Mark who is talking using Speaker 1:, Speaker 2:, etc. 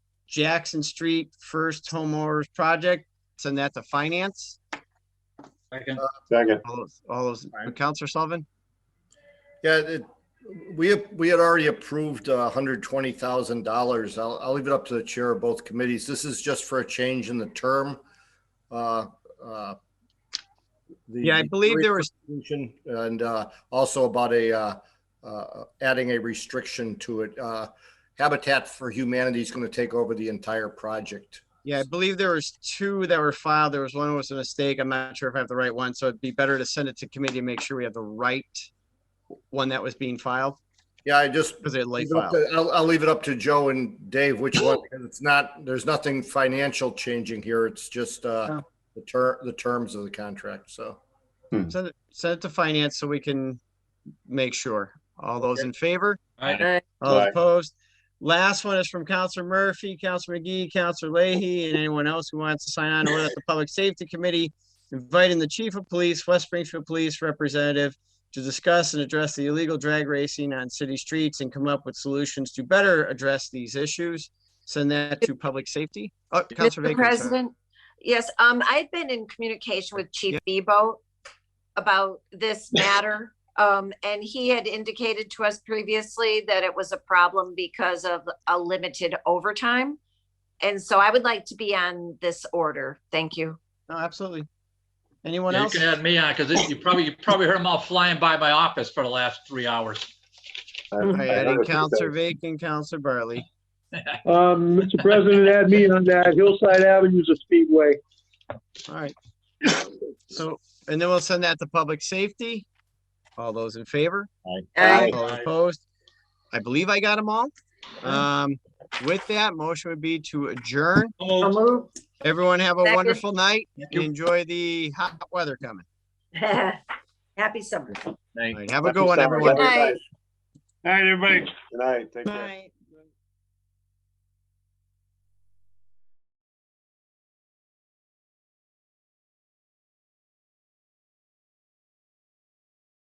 Speaker 1: Jackson Street First Homeowners Project, send that to finance.
Speaker 2: Second,
Speaker 3: Second.
Speaker 1: All those, all those,
Speaker 2: Aye.
Speaker 1: Counselor Sullivan?
Speaker 4: Yeah, it, we, we had already approved uh, hundred twenty thousand dollars. I'll, I'll leave it up to the chair of both committees. This is just for a change in the term. Uh, uh, the-
Speaker 1: Yeah, I believe there was,
Speaker 4: And uh, also about a, uh, uh, adding a restriction to it. Uh, Habitat for Humanity is going to take over the entire project.
Speaker 1: yeah, I believe there was two that were filed. There was one that was a mistake. I'm not sure if I have the right one, so it'd be better to send it to committee and make sure we have the right one that was being filed,
Speaker 4: Yeah, I just
Speaker 1: because they're late
Speaker 4: Leave it up
Speaker 1: filed.
Speaker 4: to- I'll, I'll leave it up to Joe and Dave which one, because it's not, there's nothing financial changing here. It's just uh,
Speaker 1: No.
Speaker 4: the ter, the terms of the contract, so.
Speaker 1: Send it, send it to finance so we can make sure. All those in favor?
Speaker 2: aye,
Speaker 5: Aye.
Speaker 1: All
Speaker 3: Aye.
Speaker 1: opposed? Last one is from Counselor Murphy, Counselor McGee, Counselor Leahy, and anyone else who wants to sign on. Order that the Public Safety Committee inviting the Chief of Police, West Springfield Police Representative to discuss and address the illegal drag racing on city streets and come up with solutions to better address these issues. Send that to Public Safety. Oh, Counselor
Speaker 5: Mr.
Speaker 1: Bacon, sorry.
Speaker 5: President, yes, um, I've been in communication with Chief Bebo about this matter. Um, and he had indicated to us previously that it was a problem because of a limited overtime. And so I would like to be on this order. Thank you.
Speaker 1: No, absolutely. Anyone
Speaker 2: Yeah, You
Speaker 1: else?
Speaker 2: can add me on, because you probably, you probably heard them all flying by my office for the last three hours.
Speaker 1: I added Counselor Bacon, Counselor Bartley.
Speaker 6: Um, Mr. President, add me on that. Hillside Avenue's a speedway.
Speaker 1: All right. So, and then we'll send that to public safety. All those in favor?
Speaker 5: Aye. Mm-hmm.
Speaker 1: All opposed? I believe I got them all. Um, with that, motion would be to adjourn.
Speaker 5: So moved.
Speaker 1: Everyone have a
Speaker 5: Second.
Speaker 1: wonderful night.
Speaker 2: you.
Speaker 1: Enjoy the hot weather coming.
Speaker 5: Happy summer.
Speaker 1: All right, have a good one, everyone.
Speaker 5: Good night.
Speaker 6: All right, everybody.
Speaker 3: Good night, take care.
Speaker 7: Right.